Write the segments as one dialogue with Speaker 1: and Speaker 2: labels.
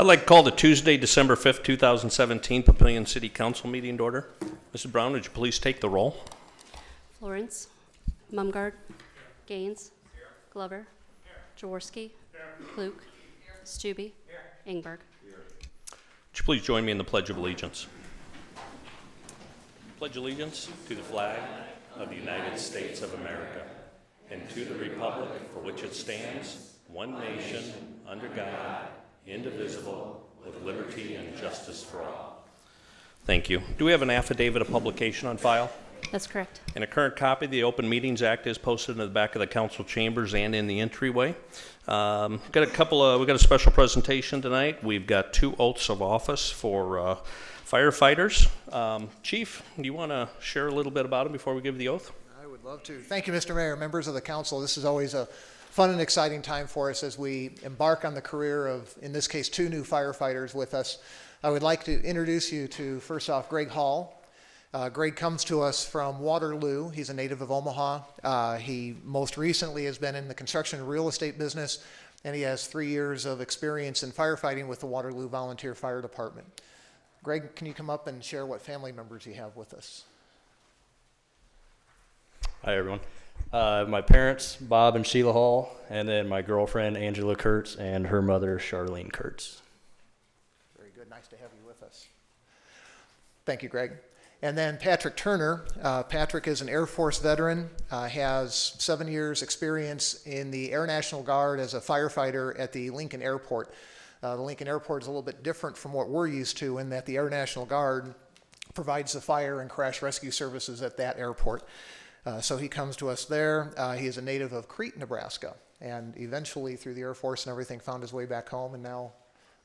Speaker 1: I'd like to call the Tuesday, December 5th, 2017 Papillion City Council meeting to order. Mrs. Brown, would you please take the roll?
Speaker 2: Florence. Mumgarde. Gaines. Glover. Jaworski. Luke. Stube. Ingberg.
Speaker 1: Would you please join me in the Pledge of Allegiance? Pledge allegiance to the flag of the United States of America and to the republic for which it stands, one nation, under God, indivisible, with liberty and justice for all. Thank you. Do we have an affidavit of publication on file?
Speaker 2: That's correct.
Speaker 1: And a current copy of the Open Meetings Act is posted in the back of the council chambers and in the entryway. Um, Got a couple of, we've got a special presentation tonight. We've got two oaths of office for uh, firefighters. Um, Chief, do you want to share a little bit about them before we give the oath?
Speaker 3: I would love to. Thank you, Mr. Mayor, members of the council. This is always a fun and exciting time for us as we embark on the career of, in this case, two new firefighters with us. I would like to introduce you to, first off, Greg Hall. Uh, Greg comes to us from Waterloo. He's a native of Omaha. Uh, he most recently has been in the construction and real estate business, and he has three years of experience in firefighting with the Waterloo Volunteer Fire Department. Greg, can you come up and share what family members you have with us?
Speaker 4: Hi, everyone. Uh, my parents, Bob and Sheila Hall, and then my girlfriend, Angela Kurtz, and her mother, Charlene Kurtz.
Speaker 3: Very good. Nice to have you with us. Thank you, Greg. And then Patrick Turner. Uh, Patrick is an Air Force veteran, uh, has seven years' experience in the Air National Guard as a firefighter at the Lincoln Airport. Uh, the Lincoln Airport is a little bit different from what we're used to in that the Air National Guard provides the fire and crash rescue services at that airport. Uh, so he comes to us there. Uh, he is a native of Crete, Nebraska, and eventually, through the Air Force and everything, found his way back home and now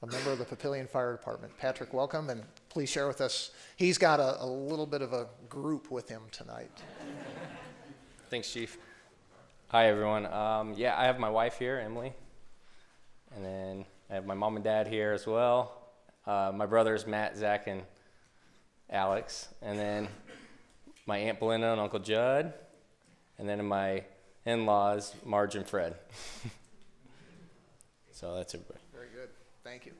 Speaker 3: a member of the Papillion Fire Department. Patrick, welcome, and please share with us. He's got a, a little bit of a group with him tonight.
Speaker 5: Thanks, Chief. Hi, everyone. Um, yeah, I have my wife here, Emily, and then I have my mom and dad here as well. Uh, my brothers, Matt, Zach, and Alex, and then my aunt Belinda and Uncle Judd, and then my in-laws, Marge and Fred. so that's everybody.
Speaker 3: Very good. Thank you.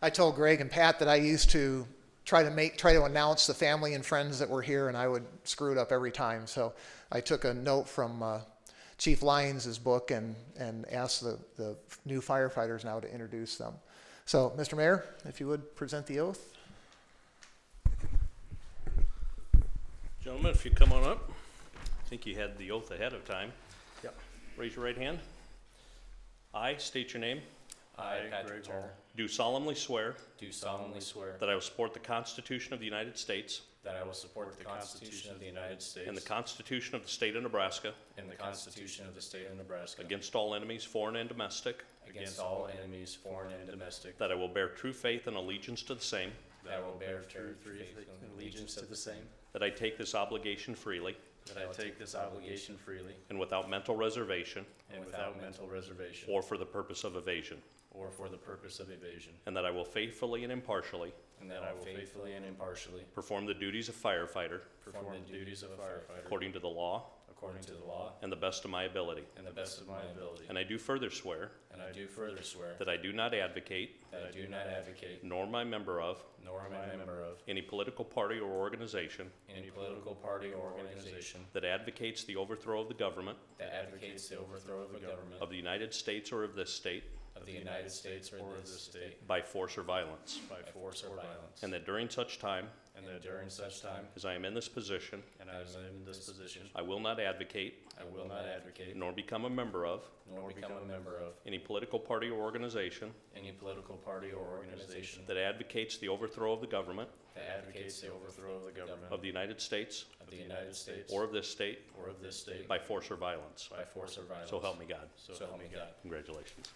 Speaker 3: I told Greg and Pat that I used to try to make try to announce the family and friends that were here, and I would screw it up every time. So I took a note from uh, Chief Lyons' book and and asked the, the new firefighters now to introduce them. So, Mr. Mayor, if you would present the oath.
Speaker 1: Gentlemen, if you come on up, I think you had the oath ahead of time.
Speaker 4: Yep.
Speaker 1: Raise your right hand. I state your name,
Speaker 5: I, Patrick Turner,
Speaker 1: do solemnly swear
Speaker 5: do solemnly swear
Speaker 1: that I will support the Constitution of the United States
Speaker 5: that I will support the Constitution of the United States
Speaker 1: and the Constitution of the State of Nebraska
Speaker 5: and the Constitution of the State of Nebraska
Speaker 1: against all enemies, foreign and domestic,
Speaker 5: against all enemies, foreign and domestic,
Speaker 1: That I will bear true faith and allegiance to the same.
Speaker 5: that I will bear true faith and allegiance to the same,
Speaker 1: That I take this obligation freely
Speaker 5: that I take this obligation freely
Speaker 1: and without mental reservation
Speaker 5: and without mental reservation
Speaker 1: or for the purpose of evasion.
Speaker 5: or for the purpose of evasion,
Speaker 1: And that I will faithfully and impartially
Speaker 5: and that I will faithfully and impartially
Speaker 1: perform the duties of firefighter
Speaker 5: perform the duties of a firefighter
Speaker 1: according to the law
Speaker 5: according to the law
Speaker 1: and the best of my ability.
Speaker 5: and the best of my ability.
Speaker 1: And I do further swear
Speaker 5: And I do further swear
Speaker 1: that I do not advocate,
Speaker 5: that I do not advocate,
Speaker 1: nor am I a member of,
Speaker 5: nor am I a member of,
Speaker 1: any political party or organization
Speaker 5: any political party or organization
Speaker 1: that advocates the overthrow of the government
Speaker 5: that advocates the overthrow of a government
Speaker 1: of the United States or of this state
Speaker 5: of the United States or of this state
Speaker 1: by force or violence.
Speaker 5: by force or violence.
Speaker 1: And that during such time
Speaker 5: And that during such time,
Speaker 1: as I am in this position,
Speaker 5: and as I am in this position,
Speaker 1: I will not advocate
Speaker 5: I will not advocate
Speaker 1: nor become a member of
Speaker 5: nor become a member of
Speaker 1: any political party or organization
Speaker 5: any political party or organization
Speaker 1: that advocates the overthrow of the government
Speaker 5: that advocates the overthrow of the government
Speaker 1: of the United States
Speaker 5: of the United States
Speaker 1: or of this state
Speaker 5: or of this state
Speaker 1: by force or violence.
Speaker 5: by force or violence.
Speaker 1: So help me God.
Speaker 5: So help me God.
Speaker 1: Congratulations.